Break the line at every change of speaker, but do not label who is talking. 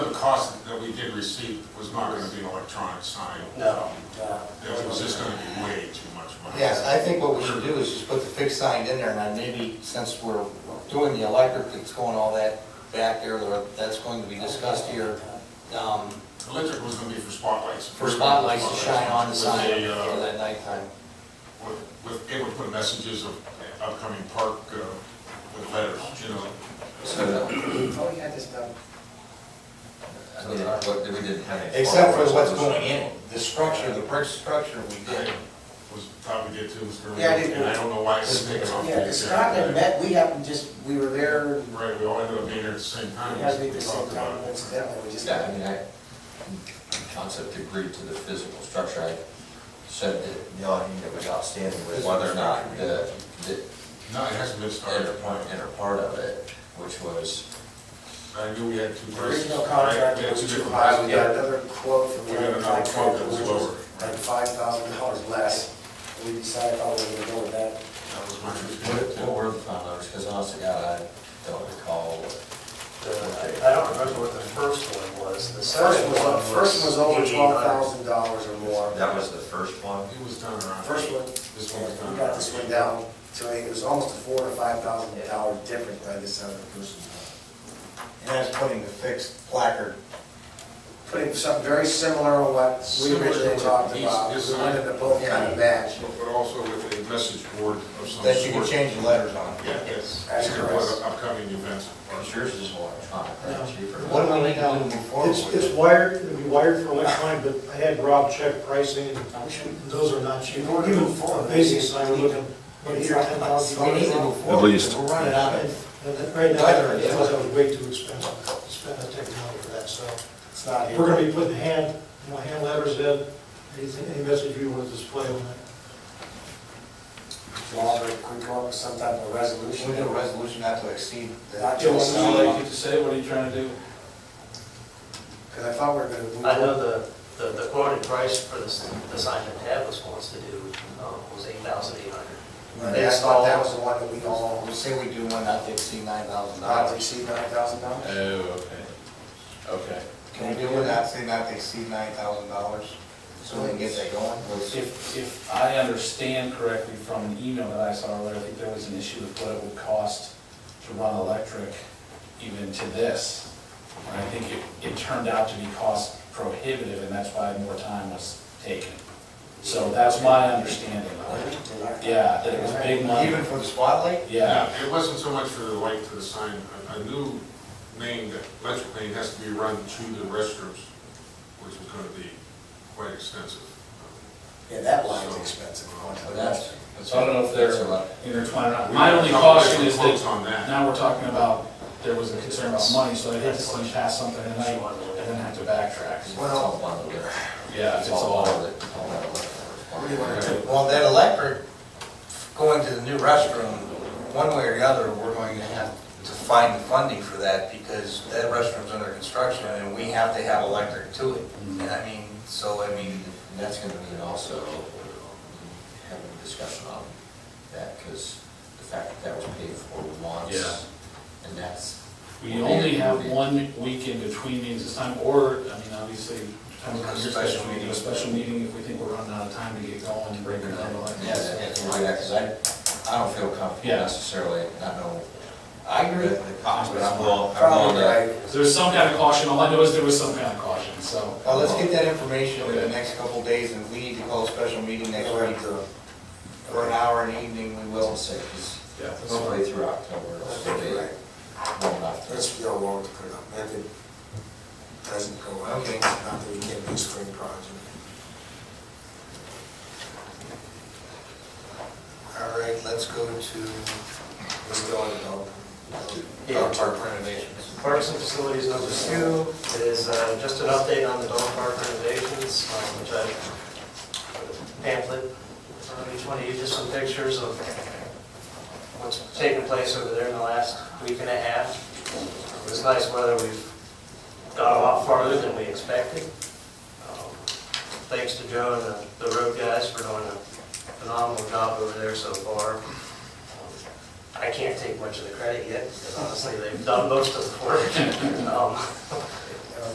cost that we did receive was not gonna be an electronic sign.
No. no.
It was just gonna be way too much money.
Yes, I think what we should do is just put the fixed sign in there, and then maybe since we're doing the electric, it's going all that back there, or that's going to be discussed here, um,
Electric was gonna be for spotlights.
for spotlights to shine on the
With
sign
a, uh,
for that nighttime.
with- with, it would put messages of upcoming park uh, with letters, you know.
Oh, yeah, just, uh,
I mean, what, we didn't have any.
Except for what's going in, the structure, the brick structure we did.
Was probably get to Mr.
Yeah, I did.
And I don't know why it's taken off.
yeah, 'cause Scott and Met, we happened just, we were there, and
Right, we all ended up being there at the same time.
had to be the same
talked about
time,
it.
incidentally, we just.
Yeah, I mean, I, in concept agreed to the physical structure, I said that the only thing that was outstanding was whether or not the, the
No, it hasn't been started
inner
at
part, inner part of it, which was,
I knew we had two.
The Original
Right,
contract
we had two
was too
different
high, we
prices.
got another quote from
We
the
got
other
another quote
contractor,
that was
which
lower,
was like
right.
five thousand dollars less. We decided how we were gonna go with that.
That was my
what,
understanding.
what were the final numbers? Because honestly, God, I don't recall.
The- I don't remember what the first one was. The
First
second
was,
one
uh,
was.
first was over
8,800.
twelve thousand dollars or more.
That was the first one?
It was done around.
First one,
This one was done.
we got this one down to, a- it was almost a four to five thousand dollar difference by this other person.
And that's putting the fixed placard.
Putting something uh, very similar to what we
Similar to
originally
what
talked
he's-
about,
his
we
sign-
wanted to both kind of match.
But but also with a message board of some sort.
That you can change the letters on.
Yeah, yes.
That's
Either one,
correct.
Upcoming events.
Well, Yours is electronic, right, cheaper?
What do we need to do to move forward
It's,
with
it's
it?
wired, it'll be wired for electronic, but I had Rob check pricing, and those are not cheap.
In order to
Even
move forward,
a basic sign, we're looking, what,
It's
here,
like
ten
We need
thousand
to
dollars?
move forward,
least.
because We're running out
And-
of,
and that- Right now,
Either,
I
yeah.
thought that was way too expensive, to spend that type of money for that, so.
It's not here.
We're gonna be putting hand, you know, hand letters in, anything, any message you want to display on it.
Law, very quick, or some type of
we
resolution.
need a resolution not to exceed
Not
that.
to
Like
exceed,
you say, what are you trying to do?
because I thought we were gonna move.
I know the, the the quoted price for the, s- the sign that Tavis wants to do um, was eight thousand eight hundred.
Right, I thought that was the one that we all,
We'll say we do one not to exceed nine thousand
not to
dollars.
exceed nine thousand dollars.
Oh, okay. Okay.
Can we do it not say not to exceed nine thousand dollars? So we can get that going?
If, if I understand correctly from an email that I saw earlier, I think there was an issue with what it would cost to run electric even to this. And I think it, it turned out to be cost prohibitive, and that's why more time was taken. So that's my understanding of it. Yeah, that it was big money,
Even for the spotlight?
yeah.
It wasn't so much for the light to the sign, a, a new main, that electric main has to be run to the restrooms, which is gonna be quite extensive.
Yeah, that line's expensive.
But that's.
So I don't know if they're
that's a lot.
intertwined or not.
We
My
have
only
a couple
caution
different
is
quotes
that
on that.
now we're talking about, there was a concern about money, so I'd hate to see you pass something tonight and then have to backtrack.
It's all one of it.
Yeah, it's all
of
of it.
it. All that electronic.
Well, that electric, going to the new restroom, one way or the other, we're going to have to find the funding for that because that restroom's under construction and we have to have electric to it.
Mm-hmm.
And I mean, so I mean,
And that's gonna mean also having a discussion on that, because the fact that that was paid for
Yeah.
once, and that's.
We only have one week in between meetings this time, or, I mean, obviously, depends on your special meeting, a special meeting if we think we're running out of time to get going and break it down.
Yeah, that's why, because I, I don't feel comfortable
Yeah.
necessarily, I know
I
the
agree.
the cost, but I'm willing, I'm willing
Probably,
to.
right.
There's some kind of caution, all I know is there was some kind of caution, so.
Well, Oh, let's get that information in the next couple of days and we need to call a special meeting next week for an hour in the evening, we will.
Well, say, because
Yeah.
hopefully through October, it'll still be
Right.
long enough to.
Let's feel long to put it up, and if it doesn't go out,
Okay.
not that we can't do a spring project.
All right, let's go to
Let's go on develop.
dog park renovations.
Parks and facilities number two is uh, just an update on the dog park renovations, um, which I pamphlet for each one of you, just some pictures of what's taken place over there in the last week and a half. It was nice weather, we've got a lot farther than we expected. Um, Thanks to Joe and the- the road guys for doing a phenomenal job over there so far. Um, I can't take much of the credit yet, because honestly, they've done most of the work. Um,